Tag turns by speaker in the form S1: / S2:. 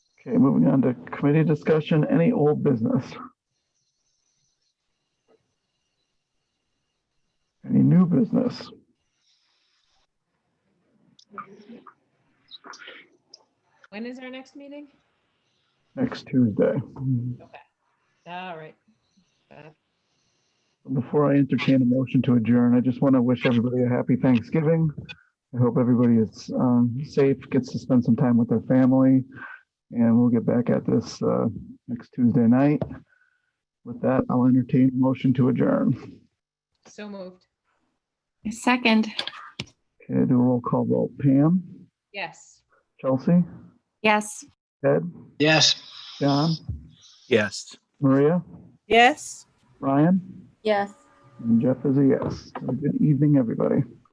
S1: Okay, moving on to committee discussion, any old business? Any new business?
S2: When is our next meeting?
S1: Next Tuesday.
S2: All Ah, right. Uh,
S1: Before I entertain a motion to adjourn, I just want to wish everybody a happy Thanksgiving. I hope everybody is um, safe, gets to spend some time with their family, and we'll get back at this uh, next Tuesday night. With that, I'll entertain a motion to adjourn.
S2: So moved.
S3: Second,
S1: Okay, do a roll call vote. Pam,
S2: Yes.
S1: Chelsea,
S3: yes.
S1: Ted,
S4: Yes.
S1: John,
S4: Yes.
S1: Maria,
S5: Yes.
S1: Ryan,
S3: Yes.
S1: and Jeff is a yes. Have a Good evening, everybody.